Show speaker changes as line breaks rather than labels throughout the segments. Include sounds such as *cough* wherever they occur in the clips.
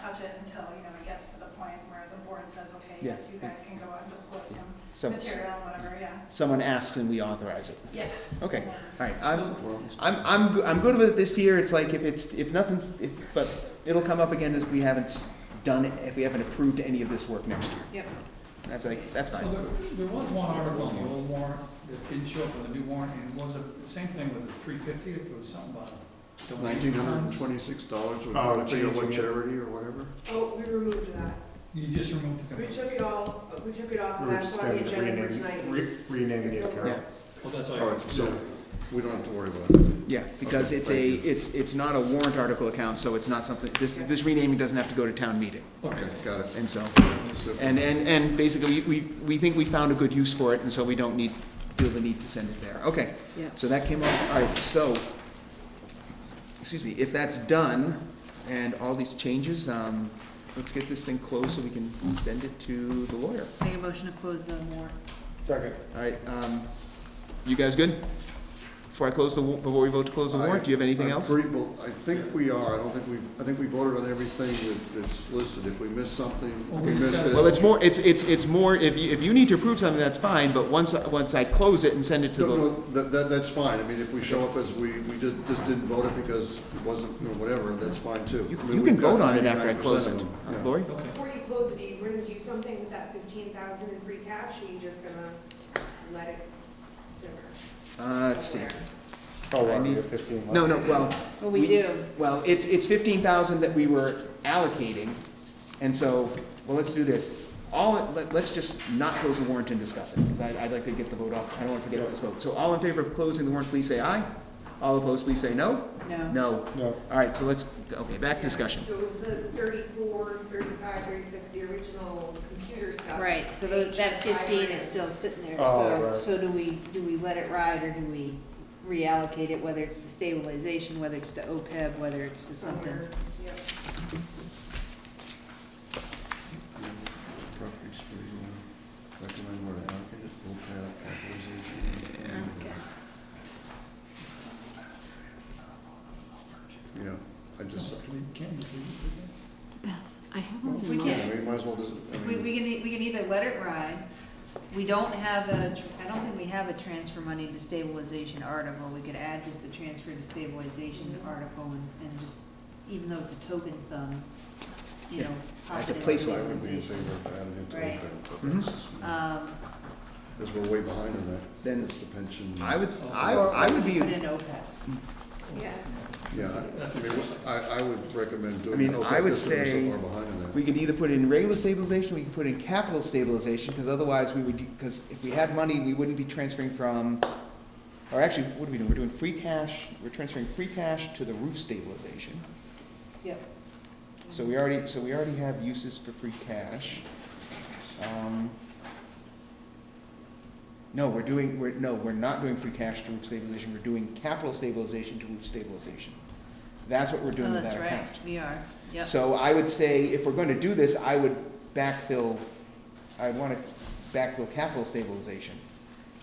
touch it until, you know, it gets to the point where the board says, okay,
Yeah.
yes, you guys can go out and deploy some
Some,
material and whatever, yeah.
someone asks and we authorize it.
Yeah.
Okay, all right, I'm, I'm, I'm, go- I'm good with it this year, it's like if it's, if nothing's, if, but it'll come up again if we haven't s- done, it if we haven't approved any of this work next year.
Yep.
That's like, that's
So
fine.
there, there was one article in the old warrant that didn't show up in the new warrant, and it was the same thing with the three fifty, it was something about
Nineteen
donating
hundred and
funds.
twenty-six dollars would
Oh,
go to
changing
what
it.
charity or whatever?
Oh, we removed that.
You just removed the,
We
well,
took it all, uh, we took it
We
off, and
were
that's
just
why the
gonna
agenda for
rename-
tonight
re-
was.
rename the account.
Yeah.
that's all.
All right,
I-
so we don't have to worry about it.
Yeah, because
Okay,
it's a,
thank you.
it's, it's not a warrant article account, so it's not something, this, this renaming doesn't have to go to town meeting,
Okay,
Okay,
got it.
and so,
So-
and, and, and basically, we, we think we found a good use for it, and so we don't need, feel the need to send it there, okay.
Yeah.
So that came off, all right, so, excuse me, if that's done, and all these changes, um, let's get this thing closed so we can send it to the lawyer.
Make a motion to close the warrant.
Second.
All right, um, you guys good? Before I close the, wa- before we vote to close the warrant, do you have anything
I'm
else?
pretty- well, I think we are, I don't think we, I think we voted on everything that- that's listed. If we missed
Well,
something,
we
we missed
discussed-
it.
Well, it's more, it's, it's, it's more, if you, if you need to approve something, that's fine, but once, once I close it and send it to
No,
the,
no, that, that, that's fine. I mean, if we show up as we, we just, just didn't vote it because it wasn't, you know, whatever, that's fine too.
you
I mean,
you
we've
can vote
got
on it after I close
99% of
it. Uh,
them. Yeah.
Lori?
okay.
Before you close it, are you gonna do something with that fifteen thousand in free cash, or are you just gonna let it simmer?
Uh, let's see.
somewhere?
Oh,
I
wow, we
need-
have fifteen left.
No, no, well.
Well, we do.
Well, it's, it's fifteen thousand that we were allocating, and so, well, let's do this. All, let, let's just not close the warrant and discuss it, because I, I'd like to get the vote off, I don't wanna forget this vote. So all in favor of closing the warrant, please say aye. All opposed, please say no. Uh,
No.
No.
No.
All right, so let's, okay, back
Yeah,
discussion.
So it was the thirty-four, thirty-five, thirty-six, the original computer stuff.
Right, so tho- that fifteen is still sitting there,
Oh,
so,
right.
so do we, do we let it ride, or do we reallocate it, whether it's to stabilization, whether it's to OPEB, whether it's to something?
Somewhere, yep.
Properties for you, uh, recommend where to allocate it, full cap, capitalization. Yeah, I just,
Can we- can we- can we-
I have
well,
We
yeah,
can,
we might as well just, I
we,
mean,
we can, e- we can either let it ride, we don't have a, tr- I don't think we have a transfer money to stabilization article, we could add just the transfer to stabilization
Mhm.
article, and, and just, even though it's a token sum, you
Yeah,
know,
as a
positive
placeholder.
so I would be in favor of adding it to
Right.
OPEB. Because
Um,
we're way behind on that.
Then-
It's the pension.
I would, s- I, I would be,
put in OPEB.
Yeah,
Yeah, I mean, I, I would recommend doing.
I mean, I
OPEB
would
just because we're
say
So far behind on that.
we could either put it in regular stabilization, we could put it in capital stabilization, because otherwise we would, because if we had money, we wouldn't be transferring from, or actually, what are we doing? We're doing free cash, we're transferring free cash to the roof stabilization.
Yep.
So we already, so we already have uses for free cash. Um, No, we're doing, we're, no, we're not doing free cash to roof stabilization, we're doing capital stabilization to roof stabilization. That's what we're doing
Oh,
with that
that's right.
account.
We are, yep.
So I would say, if we're gonna do this, I would backfill, I wanna backfill capital stabilization,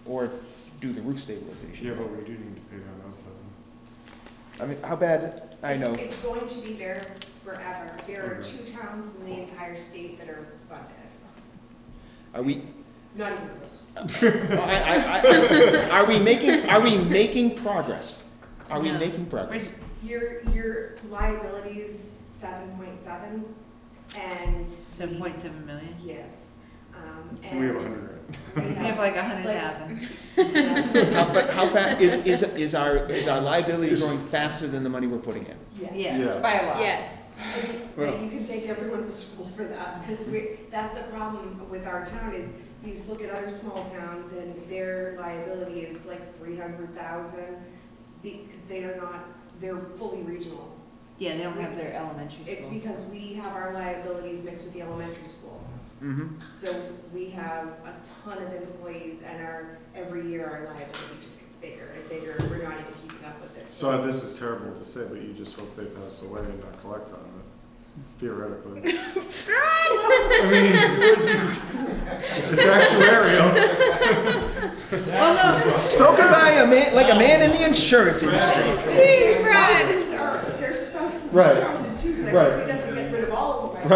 or do the roof stabilization.
Yeah, but we do need to pay that off. though.
I mean, how bad, I
It's-
know,
It's going to be there forever. There are
Okay.
two towns in the entire state that are funded,
are we,
not even close.
I, I, I, are we making, are we making progress? Are we
No.
making
*laughs*
progress?
Rich-
Your, your liability's seven point seven, and.
Seven point seven million?
Yes, um, and.
We have a hundred grand.
We have *laughs* like a hundred thousand.
like.
How, but how fa, is, is, is our, is our liability growing faster than the money we're putting in?
*laughs* Yes.
Yes,
Yeah.
by a lot.
Yes.
And
Well-
You can thank everyone at the school for that, because we, that's the problem with our town is, you just look at other small towns and their liability is like three hundred thousand, because they are not, they're fully regional.
Yeah, they don't have their elementary
It's
school.
because we have our liabilities mixed with the elementary school.
Mm-hmm.
So we have a ton of employees and our, every year our liability just gets bigger and bigger, we're not even keeping up with it.
So this is terrible to say, but you just hope they pass away and not collect on it, theoretically. I mean, *laughs* It's actuarial.
Well, no,
Spoken by a man, like a man in the insurance industry.
Their
Jeez, Brad.
spouses are, their spouses
Right.
are counted too, so
Right.
that